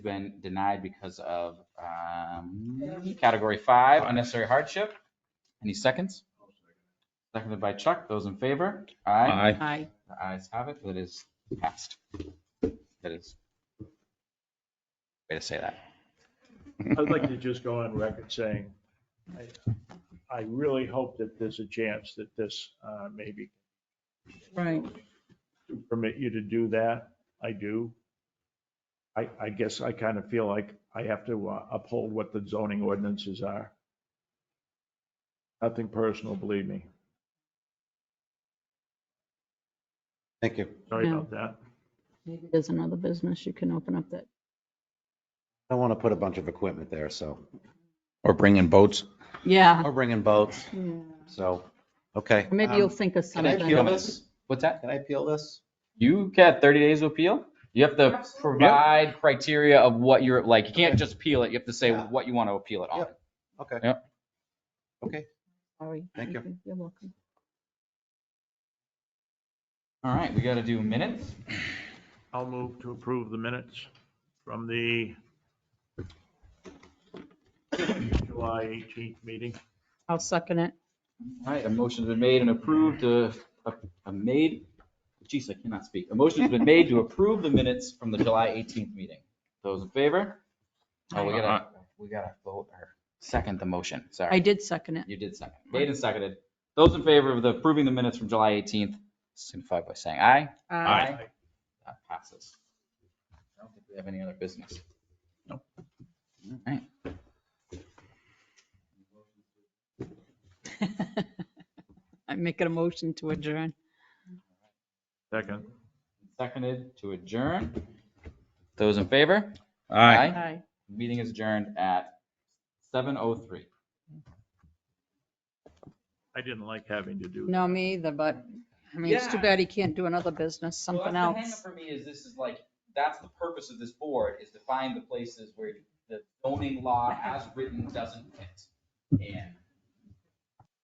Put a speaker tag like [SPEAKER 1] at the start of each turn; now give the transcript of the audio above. [SPEAKER 1] been denied because of um, category five, unnecessary hardship. Any seconds? Seconded by Chuck. Those in favor? Aye.
[SPEAKER 2] Aye.
[SPEAKER 1] The ayes have it. That is passed. That is. Way to say that.
[SPEAKER 3] I'd like to just go on record saying, I, I really hope that there's a chance that this uh, maybe
[SPEAKER 2] Right.
[SPEAKER 3] to permit you to do that. I do. I, I guess I kind of feel like I have to uh, uphold what the zoning ordinances are. Nothing personal, believe me.
[SPEAKER 4] Thank you.
[SPEAKER 3] Sorry
[SPEAKER 2] Yeah.
[SPEAKER 3] about that.
[SPEAKER 2] Maybe there's another business you can open up that.
[SPEAKER 4] I want to put a bunch of equipment there, so,
[SPEAKER 1] Or bring in boats.
[SPEAKER 2] Yeah.
[SPEAKER 4] or bringing boats, so, okay.
[SPEAKER 2] Maybe
[SPEAKER 4] um,
[SPEAKER 2] you'll think of
[SPEAKER 4] Hmm. Can I
[SPEAKER 2] something.
[SPEAKER 4] peel this?
[SPEAKER 1] What's that?
[SPEAKER 4] Can I peel this?
[SPEAKER 1] You got 30 days to appeal. You have to provide criteria of what you're like. You can't just peel it. You have to say
[SPEAKER 4] Yeah.
[SPEAKER 1] what you want to appeal it on.
[SPEAKER 4] Yep. Okay.
[SPEAKER 1] Yep.
[SPEAKER 4] Okay,
[SPEAKER 2] Sorry.
[SPEAKER 4] Thank you.
[SPEAKER 2] You're welcome.
[SPEAKER 1] All right, we got to do minutes.
[SPEAKER 3] I'll move to approve the minutes from the July 18th meeting.
[SPEAKER 2] I'll second it.
[SPEAKER 1] All right, a motion's been made and approved, uh, a a made, geez, I cannot speak. A motion's been made to approve the minutes from the July 18th meeting. Those in favor? Oh, we gotta, we gotta vote or second the motion,
[SPEAKER 2] I
[SPEAKER 1] sorry.
[SPEAKER 2] did second it.
[SPEAKER 1] You did second. Made and seconded. Those in favor of the approving the minutes from July 18th, signify by saying aye.
[SPEAKER 2] Aye.
[SPEAKER 1] That passes. I don't think we have any other business. No. All right.
[SPEAKER 2] I'm making a motion to adjourn.
[SPEAKER 3] Second.
[SPEAKER 1] Seconded to adjourn. Those in favor? Aye.
[SPEAKER 2] Aye.
[SPEAKER 1] Meeting is adjourned at 7:03.
[SPEAKER 3] I didn't like having to do that.
[SPEAKER 2] No, me either, but I mean, it's too
[SPEAKER 1] Yeah.
[SPEAKER 2] bad he can't do another business, something
[SPEAKER 1] Well, that's
[SPEAKER 2] else.
[SPEAKER 1] The hangup for me is this is like, that's the purpose of this board, is to find the places where the zoning law as written doesn't fit. And